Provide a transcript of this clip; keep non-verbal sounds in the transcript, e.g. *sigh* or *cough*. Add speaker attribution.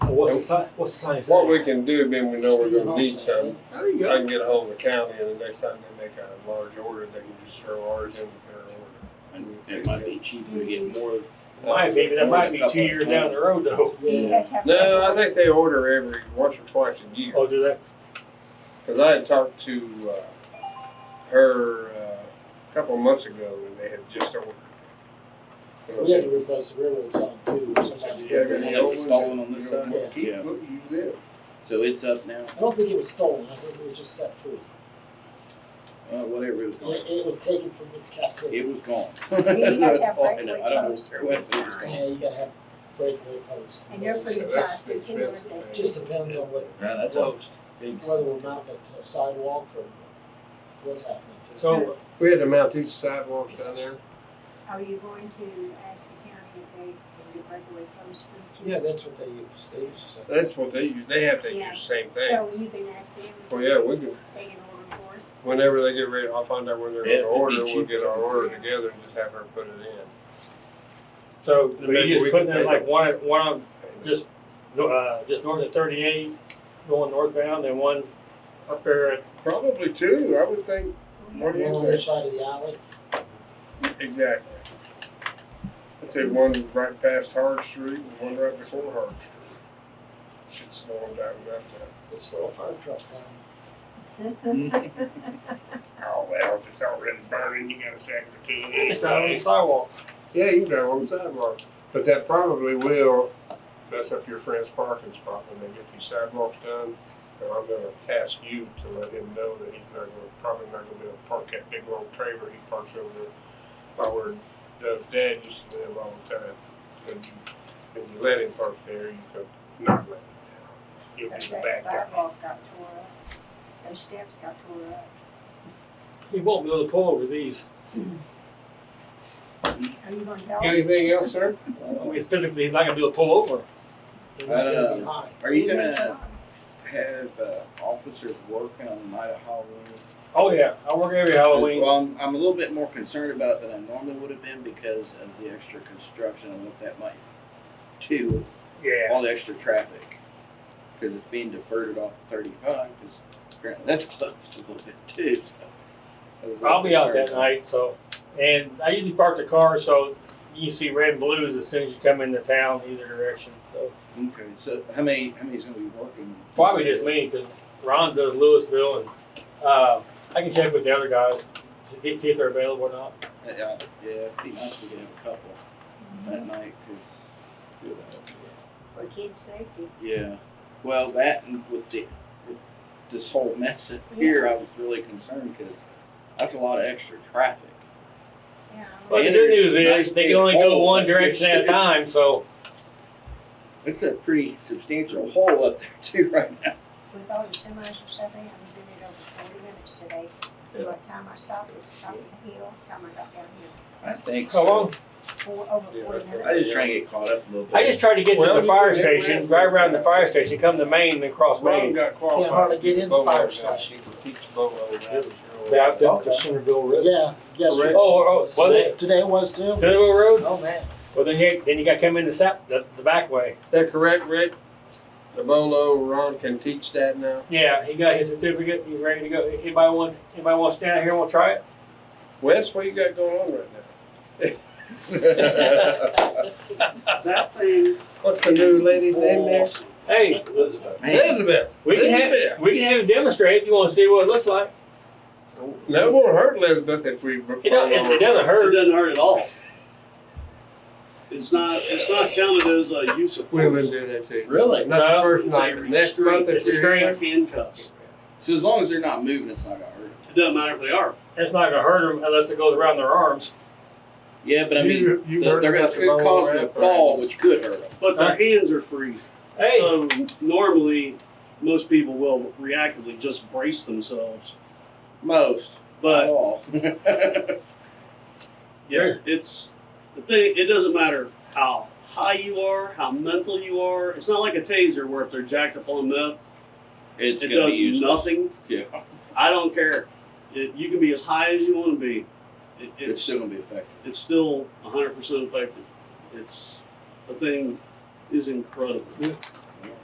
Speaker 1: what's the sign, what's the sign
Speaker 2: What
Speaker 1: say?
Speaker 2: we can do, then we know we're gonna need something.
Speaker 1: There you
Speaker 2: I
Speaker 1: go.
Speaker 2: can get a hold of the county and the next time they make a large order, they can just throw ours in with their order.
Speaker 3: And it might be cheaper to get more.
Speaker 1: Might be, but that might be two years down the road though.
Speaker 3: Yeah.
Speaker 2: No, I think they order every, once or twice a year.
Speaker 1: Oh, do that?
Speaker 2: Cause I had talked to, uh, her, uh, a couple of months ago and they had just ordered.
Speaker 4: We had to replace the railroad sign too, or somebody
Speaker 2: Yeah, but
Speaker 4: did
Speaker 3: The one
Speaker 4: that.
Speaker 3: that was stolen on this side?
Speaker 4: Yeah.
Speaker 2: Keep
Speaker 3: Yeah.
Speaker 2: what you live.
Speaker 3: So it's up now,
Speaker 4: I don't think it was stolen, I think it was just set free.
Speaker 3: uh, whatever it was.
Speaker 4: It, it was taken from its captivity.
Speaker 3: It was gone.
Speaker 5: have
Speaker 3: That's all I
Speaker 5: breakaway
Speaker 3: know. I don't
Speaker 5: posts.
Speaker 3: know where it was
Speaker 4: Yeah,
Speaker 3: gone.
Speaker 4: you gotta have breakaway posts.
Speaker 5: And they're pretty
Speaker 2: So that's
Speaker 5: fast, they
Speaker 2: the
Speaker 5: can work
Speaker 2: expensive
Speaker 5: it.
Speaker 4: Just depends on what,
Speaker 3: Right, that's a big.
Speaker 4: whether we're mounting it to a uh, sidewalk or what's happening. to it.
Speaker 2: So we had to mount these sidewalks down there.
Speaker 5: Are you going to ask the county if they can do breakaway posts for you?
Speaker 4: Yeah, that's what they use, they use the same.
Speaker 2: That's what they use. They have to
Speaker 5: Yeah.
Speaker 2: use the same thing.
Speaker 5: So you can ask them. if
Speaker 2: Well, yeah, we can,
Speaker 5: They can order for us.
Speaker 2: whenever they get ready, I'll find out when they're
Speaker 3: Yeah,
Speaker 2: gonna
Speaker 3: if it'd be
Speaker 2: order, we'll get our
Speaker 3: cheaper.
Speaker 2: order together and just have her put it in.
Speaker 1: So,
Speaker 2: Then
Speaker 1: but
Speaker 2: maybe
Speaker 1: you
Speaker 2: we
Speaker 1: just putting
Speaker 2: can
Speaker 1: in
Speaker 2: pick
Speaker 1: like
Speaker 2: up.
Speaker 1: one, one on, just, no- uh, just north of thirty-eight, going northbound, and one up there at,
Speaker 2: Probably two, I would think, *laughs* what do
Speaker 4: One on
Speaker 2: you
Speaker 4: each side of the alley,
Speaker 2: think? Exactly. I'd say one right past Hard Street and one right before Hard Street. Should slow them down enough
Speaker 4: it's still a fire truck down.
Speaker 2: to, oh, well, if it's already burning, you gotta sack it to it.
Speaker 1: it's not on the sidewalk.
Speaker 2: Yeah, you can drive on the sidewalk, but that probably will mess up your friend's parking spot when they get these sidewalks done. And I'm gonna task you to let him know that he's not gonna, probably not gonna be able to park that big old trailer he parks over there by where Doug's dad used to live all the time. And you, and you let him park there, you could not let him down. You'll be
Speaker 5: Because
Speaker 2: the
Speaker 5: that
Speaker 2: bad guy.
Speaker 5: sidewalk got tore up, those steps got tore up.
Speaker 1: He won't be able to pull over these.
Speaker 5: Are you gonna tell them?
Speaker 2: Anything else, sir?
Speaker 1: I mean, physically, he's not gonna be able to pull over.
Speaker 4: They're not gonna be high.
Speaker 3: Are you
Speaker 5: uh,
Speaker 3: gonna have, uh, officers work on the night of Halloween?
Speaker 1: Oh, yeah, I work every Halloween.
Speaker 3: Well, I'm, I'm a little bit more concerned about than I normally would have been because of the extra construction and what that might do with
Speaker 1: Yeah,
Speaker 3: all the extra traffic. Because it's being diverted off of 35, because apparently that's *laughs* closed a little bit too. So I was a little
Speaker 1: I'll be out that
Speaker 3: concerned.
Speaker 1: night, so, and I usually park the car, so you can see red and blues as soon as you come into town, either direction, so.
Speaker 3: Okay, so how many how many's gonna be working?
Speaker 1: Probably just me, because Ron does Louisville, and, uh, I can check with the other guys, to see, see if they're available or not.
Speaker 3: Yeah, yeah, it'd be nice if we could have a couple that night, because
Speaker 5: For kids' safety.
Speaker 3: yeah, well that and with the with this whole mess up here, I was really concerned because that's a lot of extra traffic.
Speaker 5: Yeah.
Speaker 1: But
Speaker 3: Well,
Speaker 1: the
Speaker 3: And
Speaker 1: good
Speaker 3: there's
Speaker 1: news is,
Speaker 3: nice
Speaker 1: they
Speaker 3: big
Speaker 1: can only go
Speaker 3: holes
Speaker 1: one
Speaker 3: like this.
Speaker 1: direction at a time, so,
Speaker 3: It's a pretty substantial hole up there too right now.
Speaker 5: With all the semis and stuff, in, I was in it over forty minutes today.
Speaker 3: Yeah.
Speaker 5: By the time I stopped, it was top of the hill, time I got down here,
Speaker 3: I think.
Speaker 1: so long.
Speaker 5: four, over
Speaker 2: Yeah,
Speaker 5: forty
Speaker 2: that's a-
Speaker 5: minutes.
Speaker 3: I just try and get caught up a little bit.
Speaker 1: I just tried to get
Speaker 2: Well,
Speaker 1: to
Speaker 2: you
Speaker 1: the fire
Speaker 2: can hit
Speaker 1: station,
Speaker 2: Red
Speaker 1: drive around
Speaker 2: Blues.
Speaker 1: the fire station, come to Maine, then cross
Speaker 2: Ron
Speaker 1: Maine.
Speaker 2: got qualified.
Speaker 4: Can't hardly get in the
Speaker 2: Bobo
Speaker 4: fire
Speaker 2: now.
Speaker 4: station.
Speaker 2: He keeps Bobo now.
Speaker 1: Yeah, I've been
Speaker 3: Okay.
Speaker 1: to Centerville Road.
Speaker 4: Yeah,
Speaker 1: Oh,
Speaker 4: yesterday.
Speaker 1: oh, was it
Speaker 4: Today was too.
Speaker 1: Centerville Road?
Speaker 4: Oh, man.
Speaker 1: Well, then you then you got to come in the sap the, the back way.
Speaker 2: That correct, Rick? The Bolo Ron can teach that now?
Speaker 1: Yeah, he got his certificate. He's ready to go. Anybody want anybody want to stand out here and want to try it?
Speaker 2: Wes, what you got going on right now?
Speaker 1: *laughs*
Speaker 6: That thing.
Speaker 2: What's the new lady's name there?
Speaker 6: awesome.
Speaker 1: Hey,
Speaker 3: Man,
Speaker 2: Elizabeth.
Speaker 1: we can have we can have him demonstrate if you want to see what it looks like.
Speaker 2: That won't hurt Elizabeth if we.
Speaker 1: It don't, it, it doesn't
Speaker 6: It
Speaker 1: hurt.
Speaker 6: doesn't hurt at all. It's not, it's not counted as a use of
Speaker 2: We wouldn't
Speaker 6: force.
Speaker 2: do that to you.
Speaker 3: really.
Speaker 2: Not the
Speaker 1: No.
Speaker 2: first
Speaker 6: It's a
Speaker 2: night, but next
Speaker 6: restraint-
Speaker 2: month if
Speaker 6: it's a
Speaker 2: you're here.
Speaker 6: restraint handcuffs.
Speaker 3: So as long as they're not moving, it's not gonna hurt.
Speaker 6: It doesn't matter if they are.
Speaker 1: It's not gonna hurt him unless it goes around their arms.
Speaker 3: Yeah, but I mean,
Speaker 2: You-
Speaker 3: the,
Speaker 2: you heard
Speaker 3: they're gonna
Speaker 2: about the bubble
Speaker 3: cause them
Speaker 2: wrap,
Speaker 3: to fall,
Speaker 2: right?
Speaker 3: which could hurt them.
Speaker 6: But their hands are free.
Speaker 1: Hey,
Speaker 6: So normally, most people will reactively just brace themselves.
Speaker 3: Most, not
Speaker 6: But
Speaker 3: all. *laughs*
Speaker 6: yeah, it's the thing. It doesn't matter how high you are, how mental you are. It's not like a taser where if they're jacked up on meth,
Speaker 3: it's
Speaker 6: it
Speaker 3: gonna
Speaker 6: does
Speaker 3: be useless.
Speaker 6: nothing.
Speaker 3: Yeah,
Speaker 6: I don't care. It, you can be as high as you want to be. It,
Speaker 3: it's,
Speaker 6: it's
Speaker 3: still gonna be effective.
Speaker 6: it's still 100% effective. It's the thing is incredible.